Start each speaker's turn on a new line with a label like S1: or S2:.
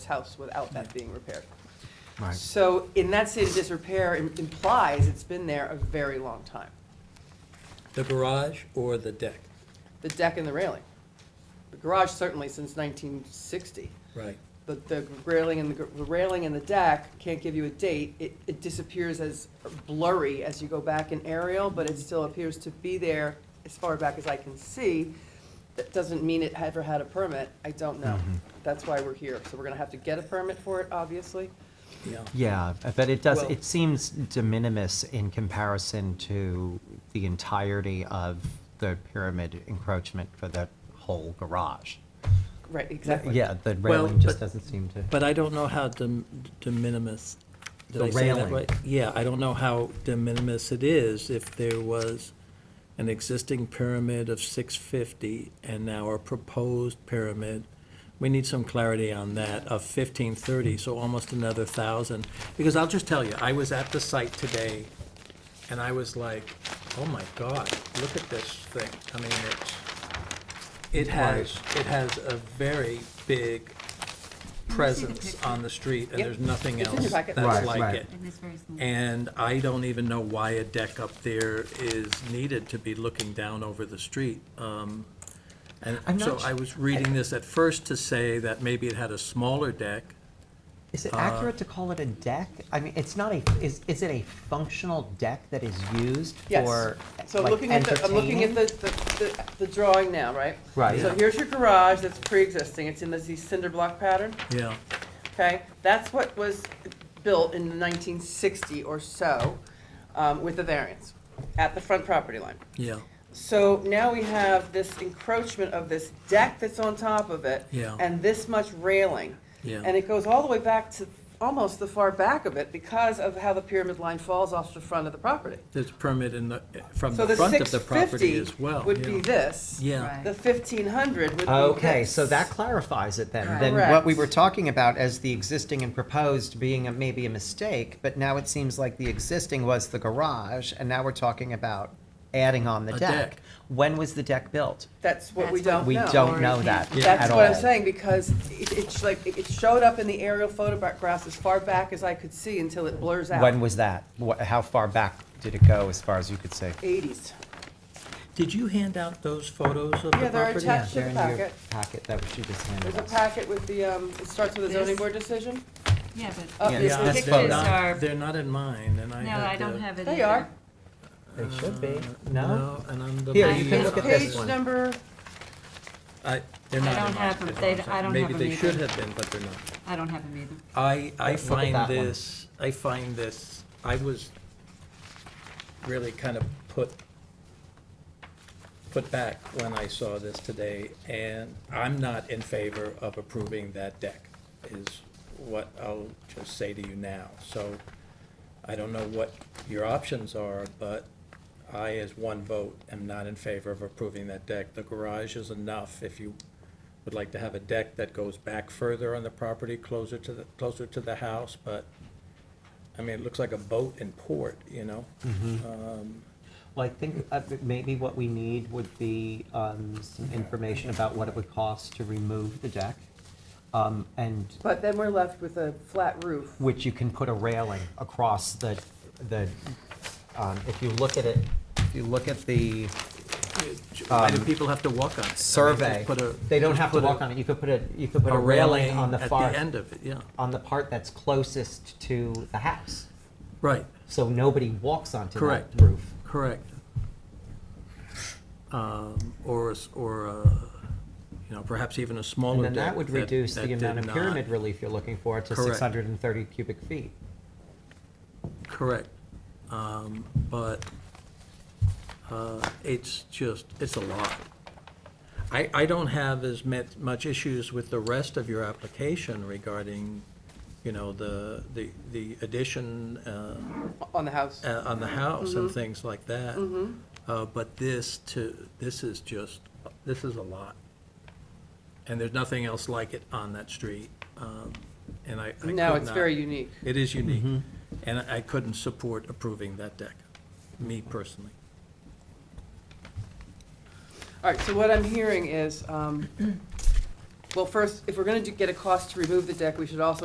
S1: house without that being repaired.
S2: Right.
S1: So in that state of disrepair im- implies it's been there a very long time.
S3: The garage or the deck?
S1: The deck and the railing. The garage certainly since 1960.
S3: Right.
S1: But the railing and the, gr- the railing and the deck can't give you a date. It, it disappears as blurry as you go back in aerial, but it still appears to be there as far back as I can see. That doesn't mean it ever had a permit. I don't know. That's why we're here. So we're gonna have to get a permit for it, obviously.
S3: Yeah.
S2: Yeah, but it does,
S1: Well-
S2: it seems de minimis in comparison to the entirety of the pyramid encroachment for the whole garage.
S1: Right, exactly.
S2: Yeah, the
S3: Well,
S2: railing just
S3: but-
S2: doesn't seem to.
S3: But I don't know how de de minimis, did
S2: The
S3: I say that
S2: railing.
S3: right? Yeah, I don't know how de minimis it is if there was an existing pyramid of 650 and now a proposed pyramid. We need some clarity on that, of 1530, so almost another 1,000. Because I'll just tell you, I was at the site today, and I was like, oh my God, look at this thing. I mean, it's, it has, it has a very big presence on the street, and
S1: Yep.
S3: there's nothing
S1: It's in
S3: else
S1: your
S3: that's
S1: packet.
S2: Right,
S3: like
S2: right.
S3: it.
S4: And it's very small.
S3: And I don't even know why a deck up there is needed to be looking down over the street. Um,
S2: I'm
S3: And so
S2: not su-
S3: I was reading this at first to say that maybe it had a smaller deck.
S2: Is it accurate to call it a deck? I mean, it's not a, is, is it a functional deck that is used
S1: Yes.
S2: for
S1: So
S2: like,
S1: looking at the, I'm looking at
S2: entertaining?
S1: the, the, the- the drawing now, right?
S2: Right.
S1: So here's your garage that's pre-existing. It's in this these cinder block pattern.
S3: Yeah,
S1: Okay, that's what was built in nineteen sixty or so, um, with a variance, at the front property line.
S3: yeah,
S1: So now we have this encroachment of this deck that's on top of it.
S3: Yeah.
S1: And this much railing.
S3: Yeah.
S1: And it goes all the way back to almost the far back of it because of how the pyramid line falls off the front of the property.
S3: there's a permit in the, from
S1: So
S3: the
S1: the
S3: front of
S1: six
S3: the property
S1: fifty
S3: as well.
S1: would be
S3: yeah.
S1: this.
S3: Yeah,
S4: Right.
S1: The fifteen hundred would be this.
S2: Okay, so that clarifies it then. Then what
S1: Correct.
S2: we were talking about as the existing and proposed being a- maybe a mistake, but now it seems like the existing was the garage, and now we're talking about adding on the
S3: A
S2: deck.
S3: deck.
S2: When was the deck built?
S1: That's what we don't
S4: That's what
S1: know.
S2: We
S4: Or
S2: don't know
S4: it
S2: that
S4: can't be.
S2: at
S1: That's
S2: all.
S1: what I'm saying, because it, it's like, it it showed up in the aerial photographs as far back as I could see until it blurs out.
S2: When was that? Wha- How far back did it go, as far as you could say?
S1: Eighties.
S3: did you hand out those photos of the property?
S1: Yeah, they're attached. That's
S2: They're
S1: in
S2: in
S1: the
S2: your
S1: packet.
S2: packet that she just
S1: There's
S2: handed
S1: a
S2: us.
S1: packet with the, um, it starts with a zoning
S4: This?
S1: board decision.
S4: Yeah,
S1: Oh, Yeah,
S4: but the
S1: it's
S3: Yeah,
S2: this
S4: pictures
S3: they're
S2: photo.
S4: are,
S3: not, they're not in mine, and I
S4: no,
S3: had
S4: I don't
S3: the-
S4: have it either.
S1: They are.
S2: They should be, no?
S3: No, and I'm the.
S2: Here,
S4: you can
S3: Yeah.
S2: look at this
S1: Page
S2: one.
S1: number,
S3: I, they're not. in
S4: I don't
S3: my
S4: have 'em.
S3: schedule,
S4: They-
S3: so
S4: I don't have
S3: Maybe
S4: 'em
S3: they should
S4: either.
S3: have been, but they're not.
S4: I don't have them either.
S3: I, I
S2: Look at that
S3: find
S2: one.
S3: this, I find this, I was really kind of put, put back when I saw this today, and I'm not in favor of approving that deck, is what I'll just say to you now. So I don't know what your options are, but I, as one vote, am not in favor of approving that deck. The garage is enough if you would like to have a deck that goes back further on the property, closer to the, closer to the house, but, I mean, it looks like a boat in port, you know?
S2: Well, I think uh, that maybe what we need would be um, some information about what it would cost to remove the deck, um, and
S1: but then we're left with a flat roof.
S2: which you can put a railing across the, the, um, if you look at it, if you look at the
S3: Why do people have to walk on it? I mean, just
S2: Um, survey,
S3: put a-
S2: they don't
S3: just
S2: have to
S3: put a-
S2: walk on it, you could put a, you could put
S3: A
S2: a railing on the
S3: At
S2: far,
S3: the end of it, yeah,
S2: on the part that's closest to the house,
S3: right,
S2: so nobody walks onto that
S3: Correct.
S2: roof.
S3: correct. Um, Or, a s- or, a, you know, perhaps even a
S2: And
S3: smaller
S2: then
S3: deck.
S2: that would reduce
S3: that
S2: the amount
S3: did
S2: of
S3: not-
S2: pyramid relief you're looking for to
S3: Correct.
S2: six hundred and thirty cubic feet.
S3: Correct. Um, But uh, it's just, it's a lot. I, I don't have as met- much issues with the rest of your application regarding, you know, the, the the addition uh,
S1: On the house.
S3: uh, on the house
S1: Mm-hmm.
S3: and things like that. Uh, But this to, this is just, this is a lot. And there's nothing else like it on that street. Um, And I. I
S1: No,
S3: could
S1: it's
S3: not-
S1: very unique.
S3: it is unique, and I I couldn't support approving that deck, me personally.
S1: All right, so what I'm hearing is, um, Well, first, if we're gonna do, get a cost to remove the deck, we should also